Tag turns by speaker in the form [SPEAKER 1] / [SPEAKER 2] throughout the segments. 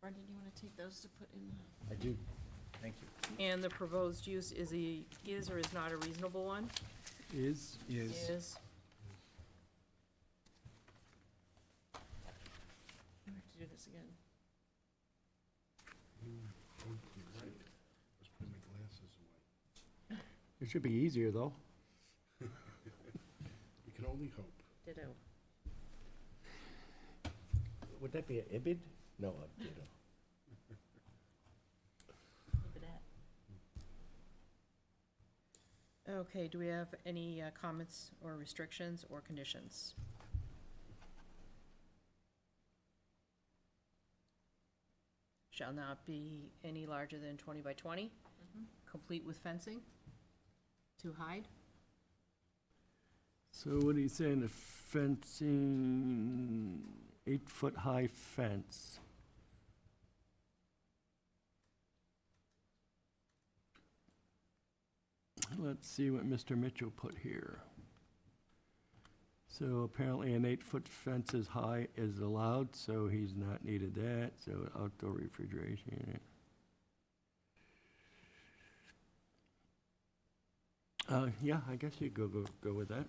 [SPEAKER 1] Brendan, you wanna take those to put in? the-
[SPEAKER 2] I do. Thank you.
[SPEAKER 3] And the proposed use is a, is or is not a reasonable one?
[SPEAKER 2] Is?
[SPEAKER 3] Is.
[SPEAKER 1] I have to do this again.
[SPEAKER 2] It should be easier, though.
[SPEAKER 4] You can only hope.
[SPEAKER 1] Ditto.
[SPEAKER 5] Would that be an ibid? No, a ditto.
[SPEAKER 1] Leave it at.
[SPEAKER 3] Okay, do we have any uh, comments or restrictions or conditions? Shall not be any larger than twenty by twenty,
[SPEAKER 1] Mm-hmm.
[SPEAKER 3] complete with fencing to hide?
[SPEAKER 2] So what are you saying, a fencing, eight-foot-high fence? Let's see what Mr. Mitchell put here. So apparently an eight-foot fence is high is allowed, so he's not needed that, so outdoor refrigeration unit. Uh, yeah, I guess you go, go, go with that.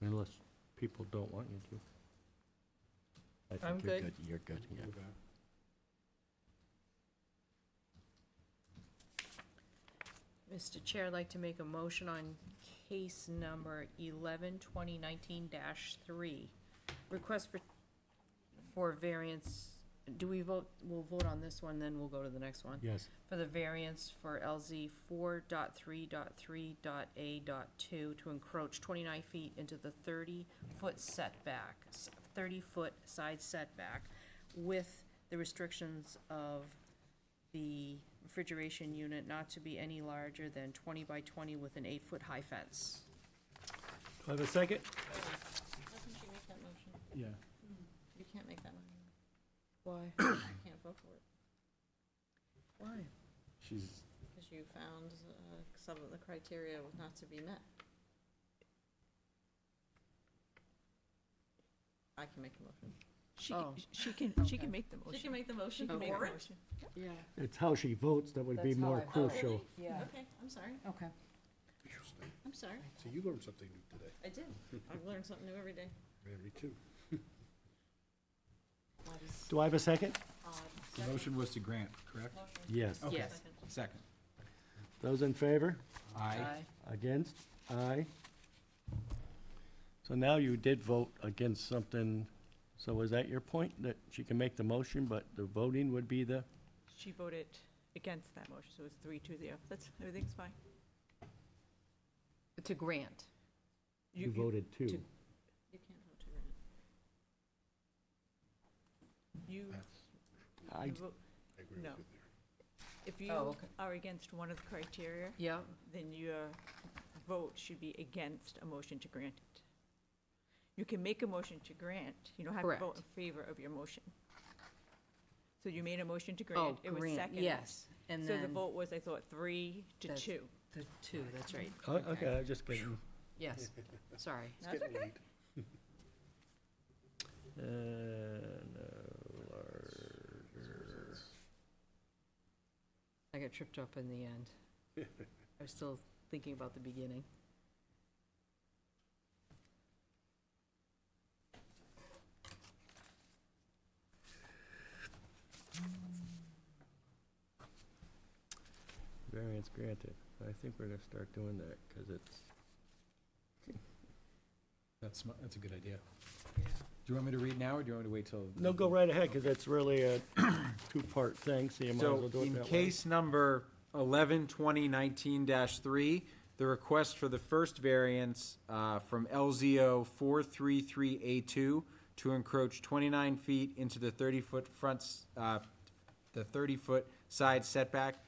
[SPEAKER 2] Unless people don't want you to.
[SPEAKER 5] I think
[SPEAKER 3] I'm
[SPEAKER 5] you're
[SPEAKER 3] good.
[SPEAKER 5] You're good, yeah.
[SPEAKER 3] Mr. Chair, I'd like to make a motion on case number eleven twenty nineteen dash three. Request for, for variance, do we vote, we'll vote on this one, then we'll go to the next one.
[SPEAKER 2] Yes.
[SPEAKER 3] For the variance for LZ four dot three dot three dot A dot two to encroach twenty-nine feet into the thirty-foot setback, thirty-foot side setback with the restrictions of the refrigeration unit not to be any larger than twenty by twenty with an eight-foot high fence.
[SPEAKER 2] Do I have a second?
[SPEAKER 1] Why can't you make that motion?
[SPEAKER 2] Yeah.
[SPEAKER 1] You can't make that motion.
[SPEAKER 3] Why?
[SPEAKER 1] I can't vote for it,
[SPEAKER 3] Why?
[SPEAKER 4] She's,
[SPEAKER 1] because you found, uh, some of the criteria was not to be met. I can make the motion.
[SPEAKER 6] She,
[SPEAKER 3] Oh.
[SPEAKER 6] can- she can, she can make the
[SPEAKER 1] She
[SPEAKER 6] motion.
[SPEAKER 1] can make the motion.
[SPEAKER 3] can make
[SPEAKER 1] for
[SPEAKER 3] the
[SPEAKER 1] it?
[SPEAKER 3] Yeah.
[SPEAKER 2] It's how she votes that would be
[SPEAKER 3] That's how
[SPEAKER 2] more
[SPEAKER 3] I vote.
[SPEAKER 1] Oh,
[SPEAKER 2] crucial.
[SPEAKER 1] really?
[SPEAKER 3] Yeah.
[SPEAKER 1] Okay, I'm sorry,
[SPEAKER 3] Okay.
[SPEAKER 4] interesting.
[SPEAKER 1] I'm sorry.
[SPEAKER 4] So you learned something new today.
[SPEAKER 1] I did. I've learned something new every day.
[SPEAKER 4] Yeah, me too.
[SPEAKER 1] That is
[SPEAKER 2] Do I have a second?
[SPEAKER 1] odd.
[SPEAKER 7] The motion was to grant, correct?
[SPEAKER 1] Second. Motion.
[SPEAKER 2] Yes.
[SPEAKER 7] Okay.
[SPEAKER 3] Yes.
[SPEAKER 1] Second.
[SPEAKER 7] Second.
[SPEAKER 2] Those in favor?
[SPEAKER 7] Aye.
[SPEAKER 3] Aye.
[SPEAKER 2] Against? Aye. So now you did vote against something, so is that your point, that she can make the motion, but the voting would be the?
[SPEAKER 6] She voted against that motion, so it's three to zero. That's, everything's fine.
[SPEAKER 3] To grant.
[SPEAKER 6] You- you-
[SPEAKER 2] two.
[SPEAKER 6] to-
[SPEAKER 1] You can't vote to grant.
[SPEAKER 6] You,
[SPEAKER 2] I,
[SPEAKER 6] you vote-
[SPEAKER 4] I agree with
[SPEAKER 6] No.
[SPEAKER 4] you
[SPEAKER 6] if
[SPEAKER 3] Oh,
[SPEAKER 6] you
[SPEAKER 3] okay.
[SPEAKER 6] are against one of the criteria,
[SPEAKER 3] Yeah.
[SPEAKER 6] then your vote should be against a motion to grant it. You can make a motion to grant, you don't have to vote
[SPEAKER 3] Correct.
[SPEAKER 6] in favor of your motion. So you made a motion to
[SPEAKER 3] Oh,
[SPEAKER 6] grant, it was
[SPEAKER 3] grant,
[SPEAKER 6] seconded.
[SPEAKER 3] yes. And
[SPEAKER 6] So the
[SPEAKER 3] then
[SPEAKER 6] vote was, I thought, three to
[SPEAKER 3] That's-
[SPEAKER 6] two.
[SPEAKER 3] the two, that's right.
[SPEAKER 2] oh, okay, I just kidding.
[SPEAKER 3] Yes, sorry.
[SPEAKER 4] there. It's getting late.
[SPEAKER 2] And, uh, larger.
[SPEAKER 3] I got tripped up in the end. I was still thinking about the beginning.
[SPEAKER 2] Variance granted. I think we're gonna start doing that, because it's,
[SPEAKER 7] That's, sm- that's a good idea. Do you want me to read now, or do you want me to wait till?
[SPEAKER 2] no, go right ahead, because it's really a two-part thing, so you might as well
[SPEAKER 7] So
[SPEAKER 2] do it
[SPEAKER 7] in
[SPEAKER 2] that way.
[SPEAKER 7] case number eleven twenty nineteen three, the request for the first variance, uh, from LZO four three three A two to encroach twenty-nine feet into the thirty-foot fronts, uh, the thirty-foot side setback